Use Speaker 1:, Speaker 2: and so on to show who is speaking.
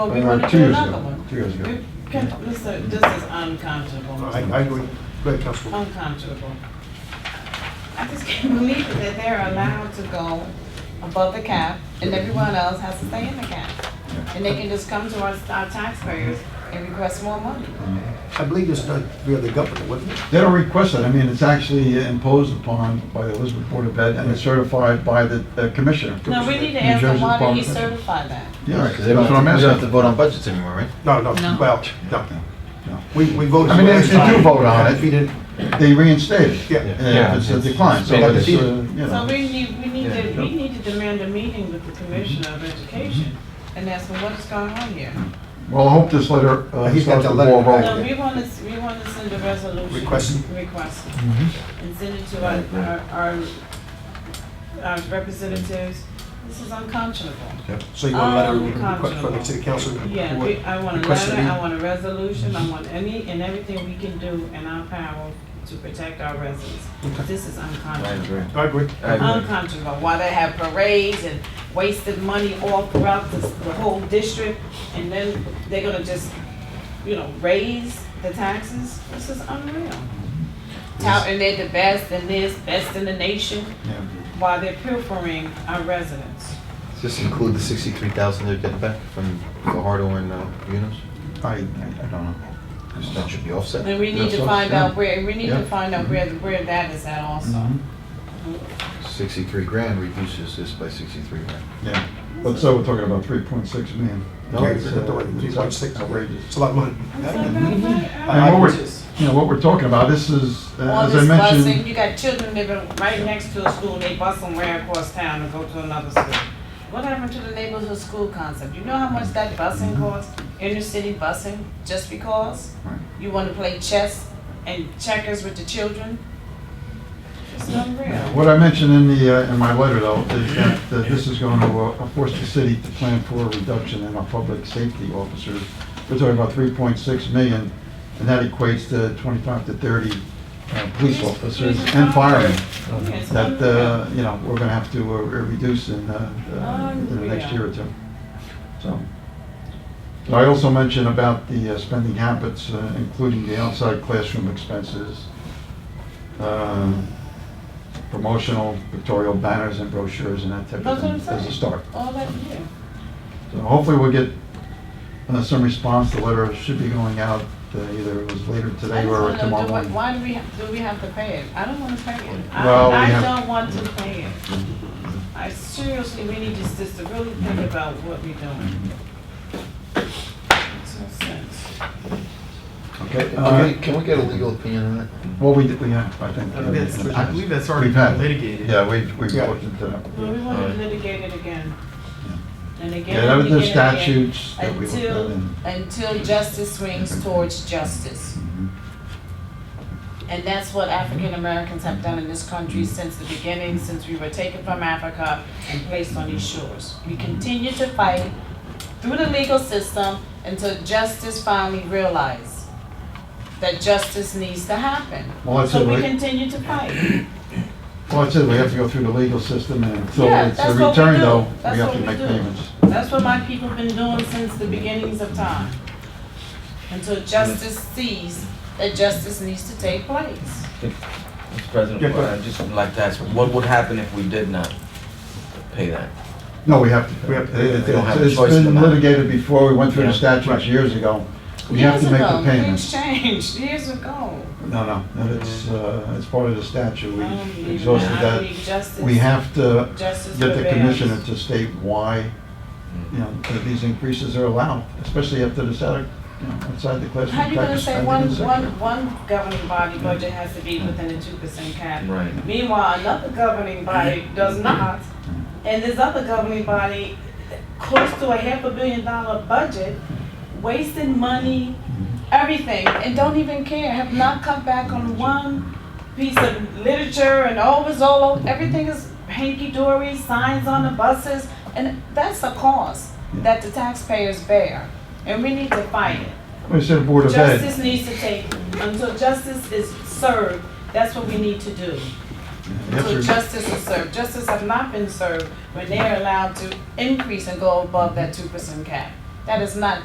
Speaker 1: Oh, we
Speaker 2: Or
Speaker 1: want to
Speaker 2: two
Speaker 1: do
Speaker 2: years
Speaker 1: another
Speaker 2: ago.
Speaker 1: one.
Speaker 2: Two years ago.
Speaker 1: You can't- This is this is unconscionable.
Speaker 2: I, I agree. Go ahead,
Speaker 1: Oh.
Speaker 2: Councilwoman.
Speaker 1: Unconscionable. I just can't believe it, that they're allowed to go above the cap and everyone else has to stay in the cap. And they can just come to us, our taxpayers and request more money.
Speaker 3: I believe it's done via the governor, wasn't it?
Speaker 2: They don't request it, I mean, it's actually imposed upon by the Elizabeth Board of Ed and it's certified by the uh, commissioner.
Speaker 1: No, we need to
Speaker 2: New
Speaker 1: ask them,
Speaker 2: Jersey
Speaker 1: why did he
Speaker 2: Department of-
Speaker 1: certify that?
Speaker 2: Yeah,
Speaker 4: Because they
Speaker 2: that's what I'm
Speaker 4: don't have to- we don't have to
Speaker 2: asking.
Speaker 4: vote on budgets anymore, right?
Speaker 3: No, no,
Speaker 1: No.
Speaker 3: well, no.
Speaker 2: No.
Speaker 3: We, we voted.
Speaker 2: I mean, if you do vote on
Speaker 3: If you
Speaker 2: it,
Speaker 3: didn't-
Speaker 2: they reinstate it.
Speaker 3: Yeah.
Speaker 2: Uh, If it's a decline, so
Speaker 4: Yeah.
Speaker 2: that's, uh, you
Speaker 1: So
Speaker 2: know.
Speaker 1: we need, we need to,
Speaker 2: Yeah.
Speaker 1: we need to demand a meeting with the Commissioner of Education and ask them what is going on here.
Speaker 2: Well, I hope this letter uh,
Speaker 3: He's got
Speaker 2: starts
Speaker 3: the
Speaker 2: the
Speaker 3: letter
Speaker 2: ball
Speaker 3: back.
Speaker 1: No,
Speaker 2: rolling.
Speaker 1: we want to, we want to send a resolution.
Speaker 3: Request. Mm-hmm.
Speaker 1: Request,
Speaker 4: Mhm.
Speaker 1: and send it to our- our, our, our representatives. This is unconscionable.
Speaker 3: So you want a letter
Speaker 1: Um,
Speaker 3: request from the
Speaker 1: Constable.
Speaker 3: city council?
Speaker 1: Yeah,
Speaker 3: for
Speaker 1: we, I want a
Speaker 3: request Mm-hmm.
Speaker 1: letter,
Speaker 3: that
Speaker 1: I want a resolution, I want any and everything we can do in our power to protect our residents.
Speaker 3: Okay.
Speaker 1: This is
Speaker 4: I
Speaker 1: unconscionable.
Speaker 4: agree.
Speaker 3: he- I agree.
Speaker 4: I agree.
Speaker 1: Um, unconscionable, why they have parades and wasted money all throughout the, the whole district, and then they're gonna just, you know, raise the taxes, this is unreal. Touting they're the best and this, best in the nation,
Speaker 2: Yeah.
Speaker 1: while they're pilfering our residents.
Speaker 4: Does this include the sixty-three thousand they're getting back from Fajardo and uh, Munoz?
Speaker 2: I, I I don't know.
Speaker 4: Because that should be offset.
Speaker 1: And we need
Speaker 2: That's
Speaker 1: to
Speaker 2: what-
Speaker 1: find
Speaker 2: yeah.
Speaker 1: out where, we need to
Speaker 4: Yeah.
Speaker 1: find out where, where that is at also.
Speaker 2: Mhm.
Speaker 4: Sixty-three grand reduces this by sixty-three grand.
Speaker 2: Yeah, but so we're talking about three point six million.
Speaker 4: No,
Speaker 3: Okay,
Speaker 4: it's,
Speaker 3: it's
Speaker 4: uh,
Speaker 3: three point six.
Speaker 2: outrageous.
Speaker 3: It's a lot of money.
Speaker 1: It's outrageous.
Speaker 2: Mm-hmm. And what we're, you know, what we're talking about, this is, uh,
Speaker 1: All
Speaker 2: as I
Speaker 1: this busing,
Speaker 2: mentioned,
Speaker 1: you got children living right next to a school, they bus them way across town and go to another school. What happened to the neighborhood school concept? You know how much that busing
Speaker 2: Mm-hmm.
Speaker 1: costs, inner city busing, just because?
Speaker 2: Right.
Speaker 1: You wanna play chess and checkers with the children? It's unreal.
Speaker 2: what I mentioned in the, uh, in my letter though, is that uh, this is going to uh, force the city to plan for a reduction in our public safety officers. We're talking about three point six million, and that equates to twenty-five to thirty uh, police officers and firemen.
Speaker 1: Yeah, it's
Speaker 2: That,
Speaker 1: unreal.
Speaker 2: uh, you know, we're going to have to uh, reduce in, uh, uh, in the next year or two. So. So I also mentioned about the uh, spending habits, uh, including the outside classroom expenses, um, promotional pictorial banners and brochures and that type of
Speaker 1: That's what I'm
Speaker 2: thing as a
Speaker 1: saying.
Speaker 2: start.
Speaker 1: All that year.
Speaker 2: So hopefully we'll get uh, some response. The letter should be going out uh, either it was later
Speaker 1: I
Speaker 2: today
Speaker 1: just wanna
Speaker 2: or
Speaker 1: know,
Speaker 2: tomorrow
Speaker 1: do we-
Speaker 2: morning.
Speaker 1: Why do we, have- do we have to pay it? I don't wanna pay it.
Speaker 2: Well, we
Speaker 1: I, I
Speaker 2: have- Mm-hmm.
Speaker 1: don't want to pay it. I seriously, we need just, just to really think about what we're doing. Makes no sense.
Speaker 2: Okay.
Speaker 4: Can we-
Speaker 2: uh,
Speaker 4: Can we get a legal opinion on that?
Speaker 2: Well, we, did- we have, I think. uh,
Speaker 5: I think that's- I believe that's already
Speaker 2: We've had-
Speaker 5: litigated.
Speaker 2: Yeah, we've, we've
Speaker 3: Yeah.
Speaker 2: looked into that.
Speaker 1: Well, we wanna
Speaker 5: Alright.
Speaker 1: litigate it again. And again,
Speaker 2: Yeah, that
Speaker 1: and
Speaker 2: was the
Speaker 1: again, and again.
Speaker 2: statutes that we looked at
Speaker 1: Until,
Speaker 2: and.
Speaker 1: until justice swings towards justice.
Speaker 2: Mhm.
Speaker 1: And that's what African Americans have done in this
Speaker 2: Mm.
Speaker 1: country since the beginning, since we were taken from Africa and placed on these shores. We continue to fight through the legal system until justice finally realizes that justice needs to happen.
Speaker 2: Well, that's
Speaker 1: So
Speaker 2: it,
Speaker 1: we
Speaker 2: we-
Speaker 1: continue to fight.
Speaker 2: Well, that's it, we have to go through the legal system, and until
Speaker 1: Yeah,
Speaker 2: it's a
Speaker 1: that's what we
Speaker 2: return,
Speaker 1: do.
Speaker 2: though, we
Speaker 1: That's
Speaker 2: have
Speaker 1: what
Speaker 2: to
Speaker 1: we
Speaker 2: make
Speaker 1: do.
Speaker 2: payments.
Speaker 1: That's what my people have been doing since the beginnings of time. Until justice sees that justice needs to take place.
Speaker 6: Mr.
Speaker 3: Yeah,
Speaker 6: President,
Speaker 3: go
Speaker 6: I'd just like to ask, what would happen if we did not pay that?
Speaker 2: No, we have to.
Speaker 3: We have to-
Speaker 2: It-
Speaker 6: they don't have a
Speaker 2: It's
Speaker 6: choice in
Speaker 2: been
Speaker 6: that.
Speaker 2: litigated before, we went through the
Speaker 6: Yeah.
Speaker 2: statutes years ago. We have to make the
Speaker 1: Years
Speaker 2: payments.
Speaker 1: ago, things changed, years ago.
Speaker 2: No, no, no, it's, uh, it's part of the statute,
Speaker 1: I don't believe
Speaker 2: we
Speaker 1: in
Speaker 2: exhausted
Speaker 1: that. I
Speaker 2: that.
Speaker 1: believe justice-
Speaker 2: We have to
Speaker 1: Justice
Speaker 2: get the
Speaker 1: prevails.
Speaker 2: commissioner to state why, you know, that these increases are allowed, especially after the salary, you know, outside the classroom.
Speaker 1: How you gonna
Speaker 2: tax
Speaker 1: say
Speaker 2: spending
Speaker 1: one,
Speaker 2: is there.
Speaker 1: one, one governing body budget has to be within the two percent cap?
Speaker 6: Right.
Speaker 1: Meanwhile, another governing body does not, and this other governing body, close to a half a billion dollar budget, wasting money, everything, and don't even care, have not come back on one piece of literature and all is all, everything is hanky-dory, signs on the buses, and that's a cost that the taxpayers bear, and we need to fight it.
Speaker 2: We said Board of Ed.
Speaker 1: Justice needs to take, until justice is served, that's what we need to do.
Speaker 2: You have to-
Speaker 1: Until justice is served, justice has not been served when they're allowed to increase and go above that two percent cap. That is not